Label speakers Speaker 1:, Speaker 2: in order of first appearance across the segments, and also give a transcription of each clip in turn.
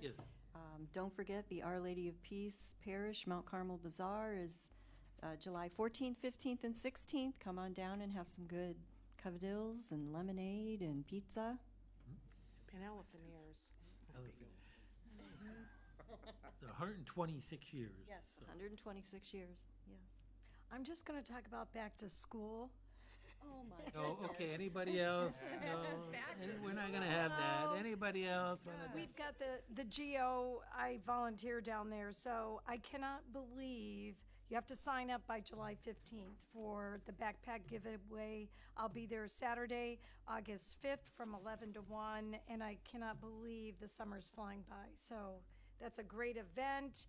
Speaker 1: Yes.
Speaker 2: Um, Don't forget, the Our Lady of Peace Parish Mount Carmel Bazaar is uh, July 14th, 15th, and 16th. Come on down and have some good covadilles and lemonade and pizza.
Speaker 3: And elephant ears.
Speaker 1: So 126 years.
Speaker 2: Yes,
Speaker 1: so-
Speaker 2: 126 years, yes.
Speaker 4: I'm just going to talk about back to school.
Speaker 2: Oh, my.
Speaker 1: Oh, okay, anybody else? No, any- we're not gonna have that. Anybody else? wanna-
Speaker 4: We've got the, the GO, I volunteer down there, so I cannot believe you have to sign up by July 15th for the backpack giveaway. I'll be there Saturday, August 5th from 11 to 1, and I cannot believe the summer's flying by. So that's a great event.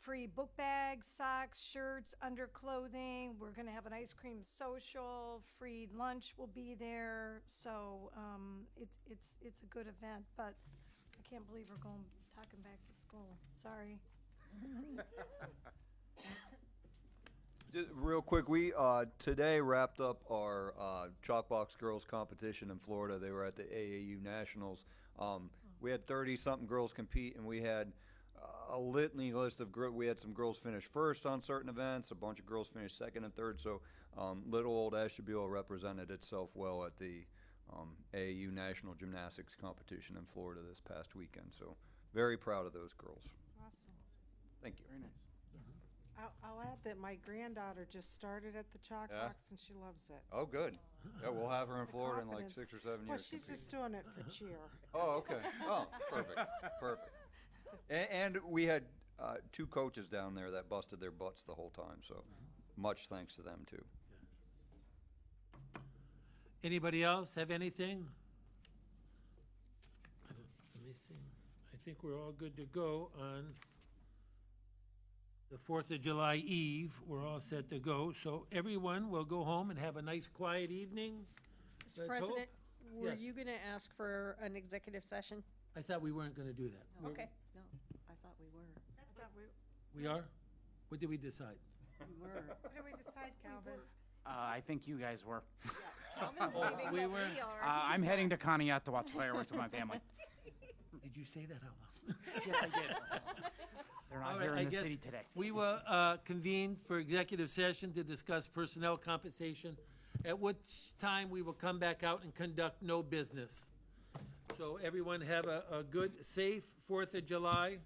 Speaker 4: Free book bags, socks, shirts, underclothing. We're going to have an ice cream social. Free lunch will be there. So um, it's it's it's a good event, but I can't believe we're going, talking back to school. Sorry.
Speaker 5: Just real quick, we uh, today wrapped up our uh, Chalkbox Girls competition in Florida. They were at the AAU Nationals. Um, we had 30 something girls compete, and we had uh, a litany list of girls. We had some girls finish first on certain events, a bunch of girls finished second and third. So um, little old Ashtabula represented itself well at the um, AAU National Gymnastics competition in Florida this past weekend. So very proud of those girls.
Speaker 3: Awesome.
Speaker 5: Thank you. Very nice.
Speaker 3: I'll, I'll add that my granddaughter just started at the chalk
Speaker 5: Yeah?
Speaker 3: box and she loves it.
Speaker 5: Oh, good. Yeah, we'll have her in Florida in like
Speaker 3: Confidence.
Speaker 5: six or seven
Speaker 3: Well,
Speaker 5: years.
Speaker 3: she's
Speaker 5: competing.
Speaker 3: just doing it for cheer.
Speaker 5: Oh, okay. Oh, perfect, perfect. And, and we had uh, two coaches down there that busted their butts the whole time, so much thanks to them too.
Speaker 1: Anybody else have anything? Let me see. I think we're all good to go on the 4th of July Eve. We're all set to go. So everyone will go home and have a nice quiet evening. Mr.
Speaker 6: President, were
Speaker 1: Yes.
Speaker 6: you going to ask for an executive session?
Speaker 1: I thought we weren't gonna do that. We're-
Speaker 6: Okay.
Speaker 2: No, I thought we were.
Speaker 1: We are? What did we decide?
Speaker 2: We were.
Speaker 3: What do we decide, Calvin?
Speaker 7: Uh, I think you guys were. Uh,
Speaker 1: We were,
Speaker 7: I'm heading to Conneaut to watch fireworks with my family.
Speaker 1: did you say that out loud?
Speaker 7: Yes, I did. They're
Speaker 1: All
Speaker 7: not
Speaker 1: right,
Speaker 7: here
Speaker 1: I
Speaker 7: in the
Speaker 1: guess
Speaker 7: city today.
Speaker 1: We will uh, convene for executive session to discuss personnel compensation, at which time we will come back out and conduct no business. So everyone have a, a good, safe Fourth of July,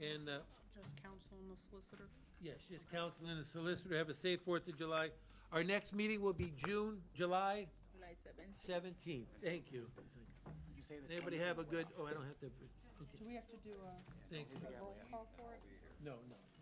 Speaker 1: and, uh,
Speaker 8: Just counsel and the solicitor?
Speaker 1: yes, just counsel and the solicitor, have a safe Fourth of July. Our next meeting will be June, July
Speaker 8: July seventh.
Speaker 1: seventeenth. Thank you.
Speaker 7: You say the
Speaker 1: Anybody
Speaker 7: 20th?
Speaker 1: have a good, oh, I don't have to, okay,
Speaker 8: Do we have to do a
Speaker 1: thank you.
Speaker 8: roll call for it?
Speaker 1: No, no.